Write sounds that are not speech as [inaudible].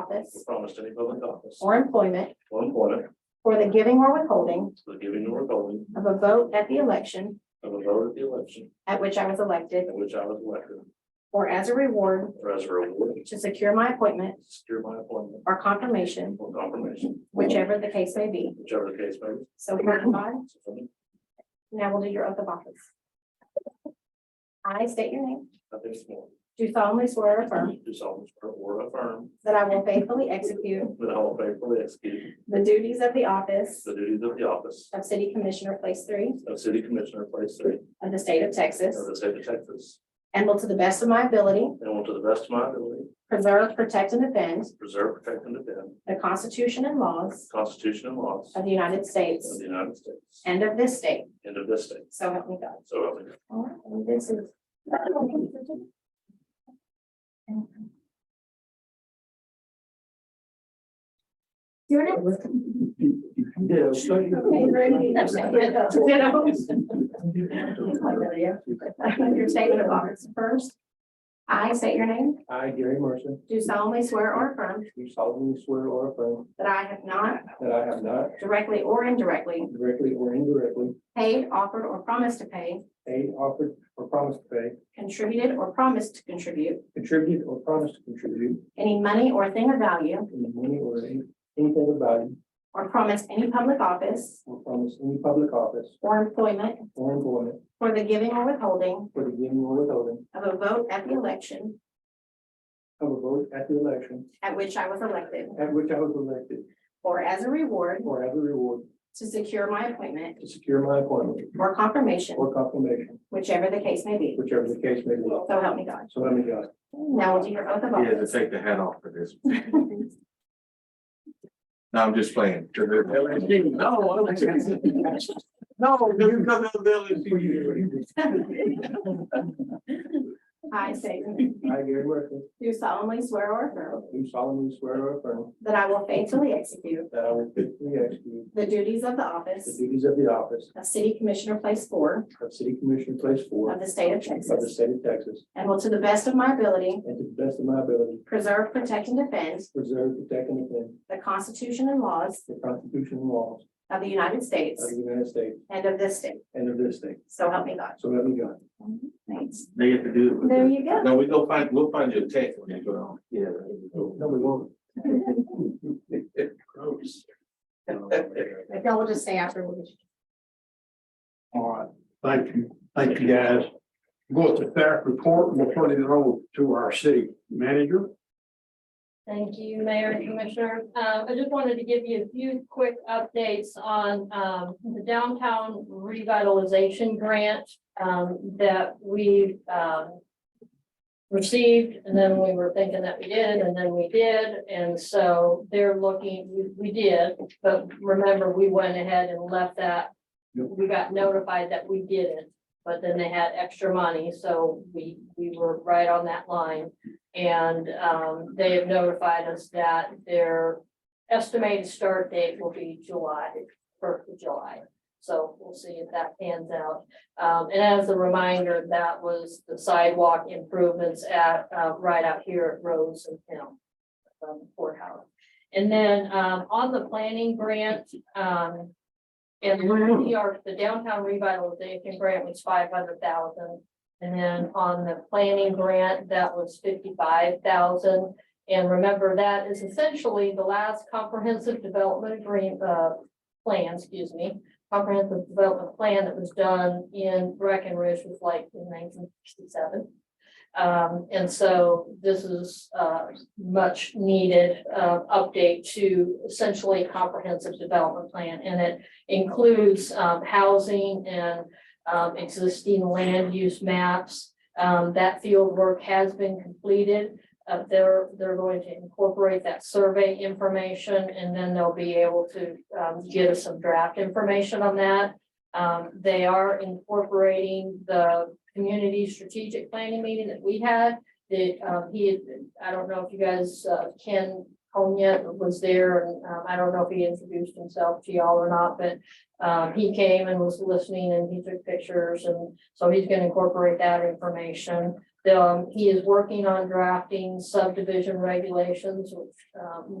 office promise to any public office or employment or employment for the giving or withholding for the giving or withholding of a vote at the election of a vote at the election at which I was elected in which I was elected or as a reward or as a reward to secure my appointment to secure my appointment or confirmation, or confirmation, whichever the case may be. whichever the case may be. So here am I. So help me Now we'll do your oath of office. I state your name, God. I think it's more. do solemnly swear or affirm Do solemnly swear or affirm that I will faithfully execute that I will faithfully execute the duties of the office the duties of the office of City Commissioner Place Three of City Commissioner, Place Three of the state of Texas of the state of Texas, and will to the best of my ability and will to the best of my ability preserve, protect, and defend preserve, protect, and defend the Constitution and laws the Constitution and laws of the United of States the United States and of this state. and of this state. So help me God. So help me God. All right, and this is. Doing it with. Yeah. Okay, very neat. [laughs] You know? Your statement of office first. I state your name, I, Gary Mercer, do solemnly swear or affirm do solemnly swear or affirm that I have not that I have not directly or indirectly directly or indirectly paid, offered, or promised to pay, paid, offered, or promised to pay, contributed, or promised to contribute contributed, or promised to contribute any money or thing of value, any money or any- anything of value, or promised any public office or promised any public office or employment or employment for the giving or withholding for the giving or withholding of a vote at the election of a vote at the election at which I was elected, at which I was elected, or as a reward or as a reward to secure my appointment to secure my appointment or confirmation, or confirmation, whichever the case may be. whichever the case may be. So help me God. So let me go. Now we'll do your oath of He had to office. take the hat off for this. No, I'm just playing. No, because of the [laughs] I say, your name. I, Gary Mercer, do solemnly swear or affirm do solemnly swear or affirm that I will faithfully execute that I will faithfully execute the duties of the The office duties of the office of City Commissioner Place Four of City Commissioner Place of Four the state of of the Texas, state of Texas, and will to the best of my ability and to the best of my ability, preserve, protect, and defend preserve, protect, and defend the Constitution and laws the Constitution and laws of the United States of the United States and of this state. and of this state. So help me God. So let me go. Thanks. They have to do. it. Mhm. There you go. No, we go find, we'll find your text when you go on. Yeah. No, we won't. Gross. If y'all will just stay after, we'll get you. All right, thank you, thank you guys. Go to staff report, and we'll turn it over to our city manager. Thank you, Mayor and Commissioner. Uh, I just wanted to give you a few quick updates on, um, the downtown revitalization grant, um, that we, um, received, and then we were thinking that we did, and then we did, and so they're looking, we, we did, but remember, we went ahead and left that. Yep. We got notified that we didn't, but then they had extra money, so we, we were right on that line. And um, they have notified us that their estimated start date will be July, first of July. So we'll see if that pans out. Um, and as a reminder, that was the sidewalk improvements at, uh, right out here at Rose and Hill. Um, courthouse. And then, um, on the planning grant, um. And we are, the downtown revitalization grant was five hundred thousand. And then on the planning grant, that was fifty-five thousand. And remember, that is essentially the last comprehensive development agreement, uh, plan, excuse me. Comprehensive development plan that was done in Breckenridge was like in nineteen sixty-seven. Um, and so this is, uh, much needed, uh, update to essentially a comprehensive development plan. And it includes, um, housing and um, existing land use maps. Um, that field work has been completed. Uh, they're, they're going to incorporate that survey information and then they'll be able to, um, give us some draft information on that. Um, they are incorporating the community strategic planning meeting that we had. That, um, he, had- I don't know if you guys, uh, Ken Konya was there and, um, I don't know if he introduced himself to y'all or not, but um, he came and was listening and he took pictures and so he's gonna incorporate that information. Um, he is working on drafting subdivision regulations, which, um,